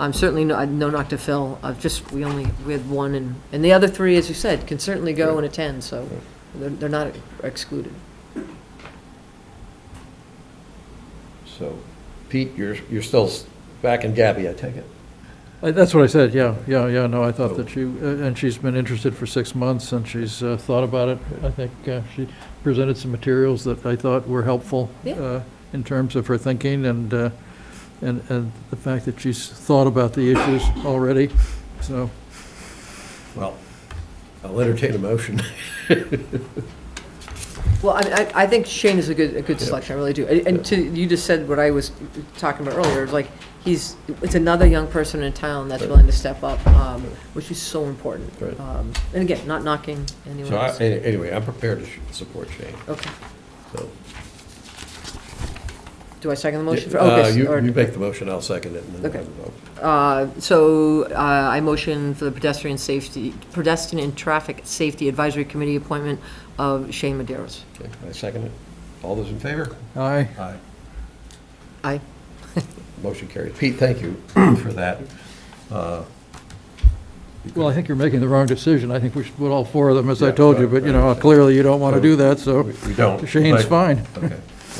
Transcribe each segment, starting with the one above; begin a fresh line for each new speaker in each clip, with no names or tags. I'm certainly no, no knock to Phil, I've just, we only, we had one, and, and the other three, as you said, can certainly go and attend, so they're, they're not excluded.
So, Pete, you're, you're still s- back in Gabby, I take it?
Uh, That's what I said, yeah, yeah, yeah, no, I
Oh.
thought that she, uh, and she's been interested for six months, and she's uh, thought about it. I think uh, she presented some materials that I thought were helpful
Yeah.
uh, in terms of her thinking, and, uh, and, and the fact that she's thought about the issues already, so.
Well, I'll entertain a motion.
Well, I, I, I think Shane is a good, a good
Yeah.
selection, I really do. And- And to, you just said what I was talking about earlier, like, he's, it's another young person in town that's
Right.
willing to step up, um, which is so important.
Right.
Um, And again, not knocking anyone
So, I-
else.
any- anyway, I'm prepared to sh- support Shane,
Okay,
so.
do I second the motion? for oh,
Uh,
okay,
You,
or-
you make the motion, I'll second it, and then we'll
Okay.
have a vote.
Uh, So uh, I motion for the pedestrian safety, pedestrian and traffic safety advisory committee appointment of Shane Maderos.
Okay, I second it. All those in favor?
Aye,
Aye.
Aye.
Motion carries. Pete, thank you for that. Uh,
well, I think you're making the wrong decision. I think we should put all four of them, as I
Yeah,
told you,
right,
but, you
right.
know, clearly you don't want to
So,
do that, so
We we don't. but-
Shane's fine.
Okay.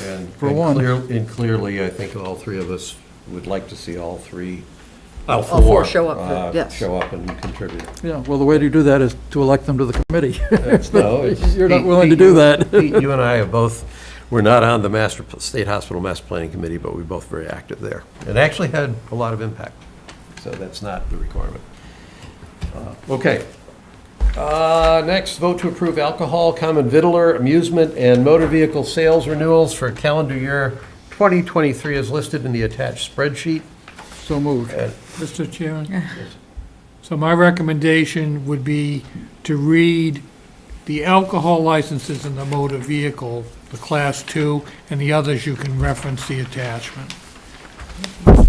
And-
For
and
one.
clear- And clearly, I think all three of us would like to see all three, all four.
All four show up for-
uh,
yes.
Show up and contribute.
Yeah, well, the way to do that is to elect them to the committee.
No, it's-
You're not
Pete-
willing to
Pete,
do
you-
that.
Pete, you and I have both, we're not on the master, pl- State Hospital Master Planning Committee, but we're both very active there. It actually had a lot of impact, so that's not the requirement. Uh, Okay. Uh, Next, vote to approve alcohol, common vittler, amusement, and motor vehicle sales renewals for calendar year 2023 as listed in the attached spreadsheet.
So moved.
And
Mr. Chairman? So my recommendation would be to read the alcohol licenses in the motor vehicle, the Class 2, and the others you can reference the attachment.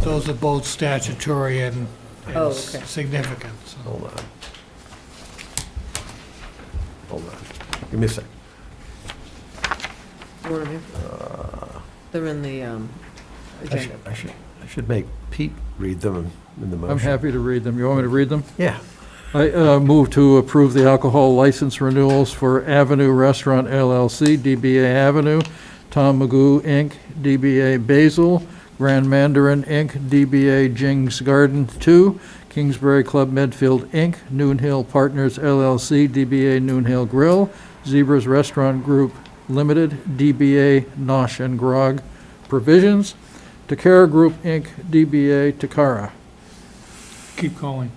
Those are both statutory and and
Oh, okay.
significant, so.
Hold on. Hold on. Give me a sec.
You want 'em here? They're in the um,
I should,
agenda.
I should, I should make Pete read them in the motion.
I'm happy to read them. You want me to read them?
Yeah.
I uh, move to approve the alcohol license renewals for Avenue Restaurant LLC, DBA Avenue, Tom Magoo, Inc., DBA Basil, Grand Mandarin, Inc., DBA Jing's Garden 2, Kingsbury Club Medfield, Inc., Noon Hill Partners LLC, DBA Noon Hill Grill, Zebras Restaurant Group Limited, DBA Nosh and Grog Provisions, Takara Group, Inc., DBA Takara.
Keep going.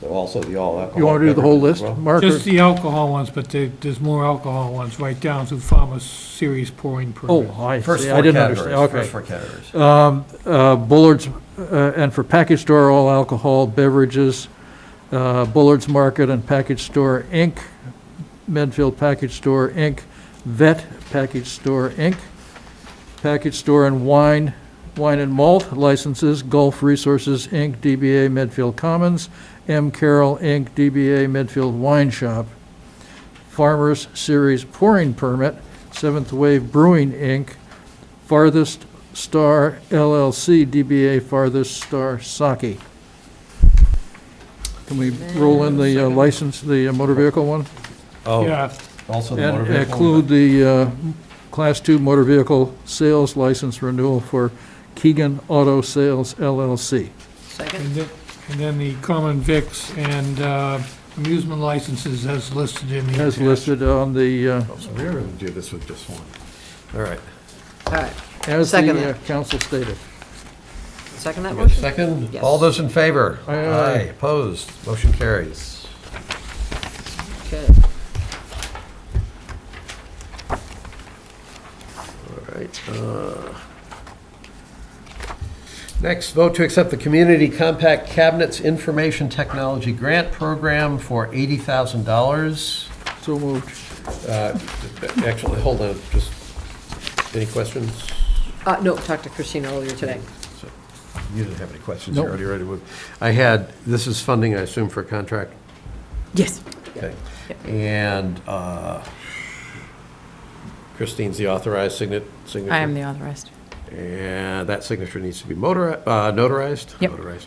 So also the all alcohol.
You want to do the whole
beverages
list,
as well?
Mark? or-
Just the alcohol ones, but there- there's more alcohol ones, right down to farmer's series pouring permit.
Oh, I
First
see, I
four
didn't understand,
categories, first
okay.
four categories.
Um, uh, Bullard's, uh, and for package store, all alcohol beverages, uh, Bullard's Market and Package Store, Inc., Medfield Package Store, Inc., Vet Package Store, Inc., Package Store and Wine, Wine and Malt licenses, Gulf Resources, Inc., DBA Medfield Commons, M. Carroll, Inc., DBA Medfield Wine Shop, Farmers Series Pouring Permit, Seventh Wave Brewing, Inc., Farthest Star LLC, DBA Farthest Star Saki. Can we roll in the uh, license, the uh, motor vehicle one?
Oh,
Yeah,
also the motor
And
vehicle.
include the uh, Class 2 motor vehicle sales license renewal for Keegan Auto Sales LLC.
Second?
And then- and then the common vics and uh, amusement licenses as listed in the.
As listed on the, uh,
So we're going to do this with just one. All right.
All right,
as
Second.
the uh, council stated.
second that
You got a
motion?
Second,
Yes.
all those in favor?
Aye, aye.
Opposed, motion carries.
Okay.
All right. uh, Next, vote to accept the Community Compact Cabinets Information Technology Grant Program for $80,000.
So moved.
Uh, Actually, hold on, just, any questions?
Uh, no, talked to Christina earlier today.
So, You didn't have any questions, you're
Nope.
already ready to move. I had, this is funding, I assume, for a contract?
Yes.
Okay. And uh, Christine's the authorized signet, signature?
I am the authorized.
And that signature needs to be motor, uh, notarized?
Yep.
Notarized.